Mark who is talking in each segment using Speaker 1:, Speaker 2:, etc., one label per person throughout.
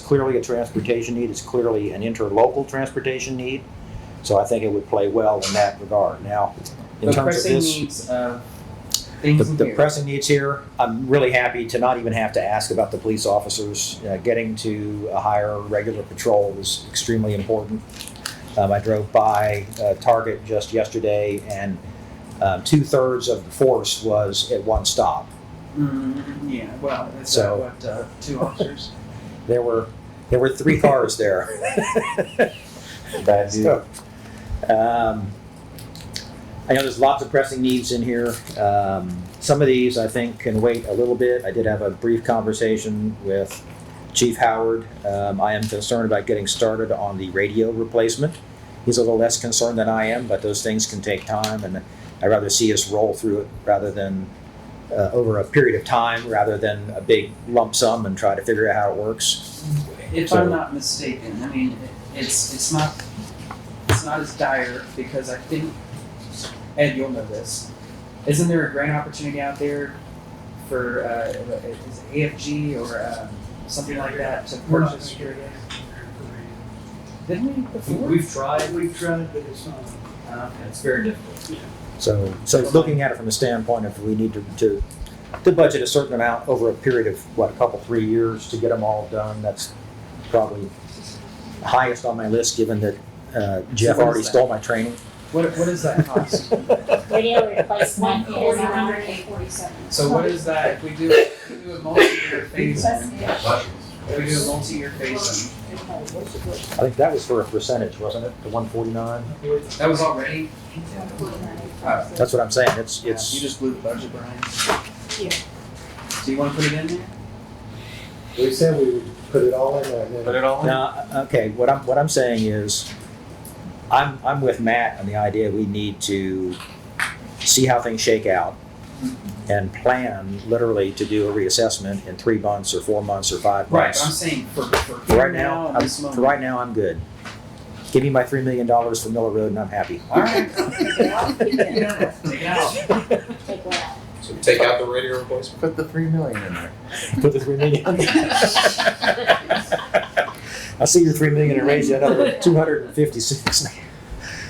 Speaker 1: clearly a transportation need, it's clearly an interlocal transportation need. So I think it would play well in that regard. Now, in
Speaker 2: The
Speaker 1: terms of
Speaker 2: pressing
Speaker 1: this,
Speaker 2: needs, uh,
Speaker 1: the,
Speaker 2: things in
Speaker 1: the
Speaker 2: here.
Speaker 1: pressing needs here, I'm really happy to not even have to ask about the police officers. Uh, Getting to a higher regular patrol is extremely important. Um, I drove by uh, Target just yesterday and um, two-thirds of the force was at one stop.
Speaker 2: Mm, yeah, well, that's
Speaker 1: So-
Speaker 2: uh, what uh, two officers.
Speaker 1: There were, there were three cars there.
Speaker 3: Bad dude.
Speaker 1: So, um, I know there's lots of pressing needs in here. Um, some of these I think can wait a little bit. I did have a brief conversation with Chief Howard. Um, I am concerned about getting started on the radio replacement. He's a little less concerned than I am, but those things can take time, and I'd rather see us roll through it rather than uh, over a period of time, rather than a big lump sum and try to figure out how it works.
Speaker 2: If I'm not mistaken, I mean, it, it's it's not it's not as dire because I think Ed, you'll know this. Isn't there a grant opportunity out there for uh, is it AFG or um, something like that to
Speaker 4: We're not
Speaker 2: purchase?
Speaker 4: gonna get it.
Speaker 2: Didn't we before?
Speaker 4: We've tried, we've tried, but it's not.
Speaker 2: Uh, it's very difficult.
Speaker 1: So, so looking at it from the standpoint of we need to, to, to budget a certain amount over a period of, what, a couple, three years to get them all done, that's probably highest on my list, given that uh, Jeff
Speaker 2: So what is
Speaker 1: already
Speaker 2: that?
Speaker 1: stole my training.
Speaker 2: What what does that cost?
Speaker 5: Radio replacement is
Speaker 6: One hundred
Speaker 5: hundred.
Speaker 6: eight forty-seven.
Speaker 2: so what is that if we do if we do a multi-year phase? in, If we do a multi-year phase. in,
Speaker 1: I think that was for a percentage, wasn't it, the one forty-nine?
Speaker 2: That was already. Oh,
Speaker 1: That's what I'm saying, it's,
Speaker 2: You
Speaker 1: it's,
Speaker 2: just blew the budget, Brian.
Speaker 6: Yeah.
Speaker 2: Do you wanna put it in there?
Speaker 3: We said we would put it all in there, and
Speaker 4: Put
Speaker 3: then
Speaker 4: it all in.
Speaker 1: now, okay, what I'm, what I'm saying is, I'm, I'm with Matt on the idea we need to see how things shake out. and plan literally to do a reassessment in three months or four months or five
Speaker 2: Right,
Speaker 1: months.
Speaker 2: I'm saying for, for
Speaker 1: For
Speaker 2: here
Speaker 1: right
Speaker 2: now,
Speaker 1: now,
Speaker 2: at
Speaker 1: I'm,
Speaker 2: this
Speaker 1: for
Speaker 2: moment.
Speaker 1: right now, I'm good. Give me my three million dollars for Miller Road and I'm happy.
Speaker 2: Alright,
Speaker 5: Take
Speaker 2: you don't have to take it out.
Speaker 5: one out.
Speaker 7: So take out the radio replacement.
Speaker 3: put the three million in there.
Speaker 1: Put the three million. I see your three million and raise you another two hundred and fifty-six.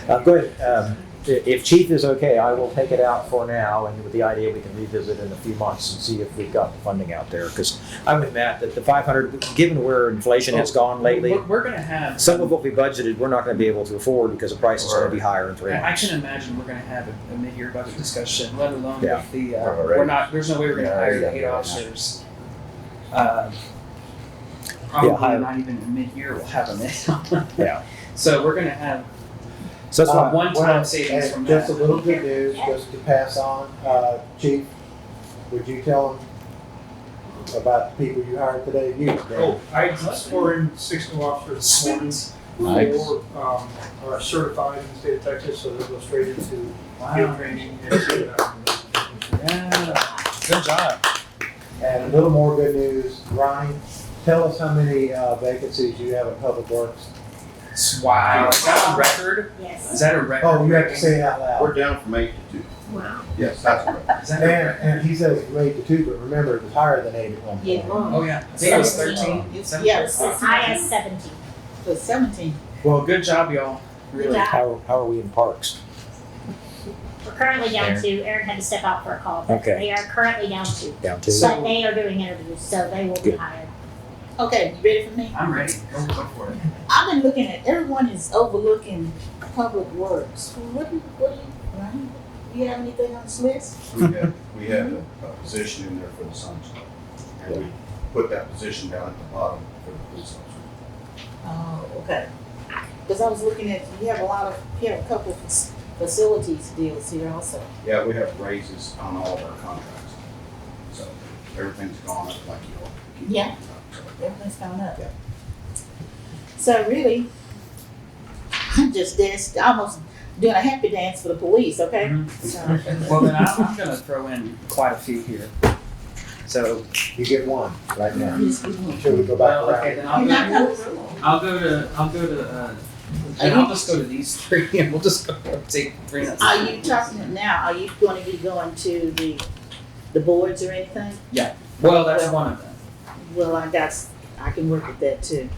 Speaker 1: Uh, go ahead, um, i- if chief is okay, I will take it out for now and with the idea we can revisit in a few months and see if we've got the funding out there. Cause I'm with Matt, that the five hundred, given where inflation has gone lately.
Speaker 2: We're, we're gonna have.
Speaker 1: Some of what we budgeted, we're not gonna be able to afford because the price is gonna be higher in three
Speaker 2: I I
Speaker 1: months.
Speaker 2: can imagine we're gonna have a, a mid-year budget discussion, let alone
Speaker 1: Yeah.
Speaker 2: with the, uh,
Speaker 3: Alright.
Speaker 2: we're not, there's no way we're gonna
Speaker 3: Yeah,
Speaker 2: hire
Speaker 3: yeah,
Speaker 2: the eight
Speaker 3: yeah.
Speaker 2: officers. Uh, Probably
Speaker 1: hire-
Speaker 2: not even a mid-year, we'll have them in.
Speaker 1: Yeah.
Speaker 2: So we're gonna have
Speaker 1: So that's
Speaker 2: Uh,
Speaker 1: why,
Speaker 2: one-time
Speaker 3: well,
Speaker 2: savings
Speaker 3: and
Speaker 2: from
Speaker 3: Just a
Speaker 2: that.
Speaker 3: little good news, just to pass on, uh, chief, would you tell them about the people you hired today, you, Dan?
Speaker 4: Oh, I just scored in six new officers this morning. Four, um, are certified in the state of Texas, so they'll go straight into field
Speaker 2: Wow.
Speaker 4: training and see that.
Speaker 2: Yeah.
Speaker 1: good job.
Speaker 3: And a little more good news, Ronnie, tell us how many, uh, vacancies you have in public works.
Speaker 2: Wow. Is that a record? Is
Speaker 5: Yes.
Speaker 2: that a record?
Speaker 3: Oh, you have to say it out
Speaker 8: We're
Speaker 3: loud.
Speaker 8: down from eight to two.
Speaker 6: Wow.
Speaker 8: Yes, that's correct.
Speaker 2: Is that
Speaker 3: And,
Speaker 2: a record?
Speaker 3: and he says from eight to two, but remember, it was higher than eight at one point.
Speaker 2: Oh, yeah. I think it was 13.
Speaker 6: Yes.
Speaker 2: Wow.
Speaker 5: I is seventeen.
Speaker 6: The seventeen.
Speaker 2: Well, good job, y'all.
Speaker 5: Good
Speaker 2: Really.
Speaker 5: job.
Speaker 1: How, how are we in parks?
Speaker 5: We're currently down to, Aaron had to step out for a call. but
Speaker 1: Okay.
Speaker 5: They are currently down to,
Speaker 1: Down to,
Speaker 2: So-
Speaker 5: but they are doing interviews, so they will be
Speaker 1: Good.
Speaker 5: hired.
Speaker 6: Okay, you ready for me?
Speaker 2: I'm ready. Go go for it.
Speaker 6: I've been looking at, everyone is overlooking public works. What do, you- what do you, Ryan, do you have anything on this list?
Speaker 8: We had, we had a a position in there for the Suns Club. And we put that position down at the bottom for the police officer.
Speaker 6: Oh, okay. Cause I was looking at, you have a lot of, you have a couple of fac- facilities deals here also.
Speaker 8: Yeah, we have raises on all of our contracts. So everything's gone up like you all. keep
Speaker 6: Yeah.
Speaker 8: talking about. So
Speaker 6: Everything's gone up.
Speaker 8: Yeah.
Speaker 6: So really, I'm just danced, almost doing a happy dance for the police, okay?
Speaker 2: Mhm.
Speaker 6: So,
Speaker 2: Well, then I'm, I'm going to throw in quite a few here. So,
Speaker 3: You get one right now.
Speaker 6: just give me-
Speaker 3: Should we go back
Speaker 2: well,
Speaker 3: around?
Speaker 2: okay, then
Speaker 6: You're not
Speaker 2: I'll
Speaker 6: coming
Speaker 2: go, I'll go to, I'll go to, uh,
Speaker 6: Are
Speaker 2: and I'll
Speaker 6: you-
Speaker 2: just go to these three and we'll just go take three minutes.
Speaker 6: Are you talking now, are you gonna be going to the, the boards or anything?
Speaker 2: Well, that's one of them.
Speaker 6: Well, I got, I can work with that too.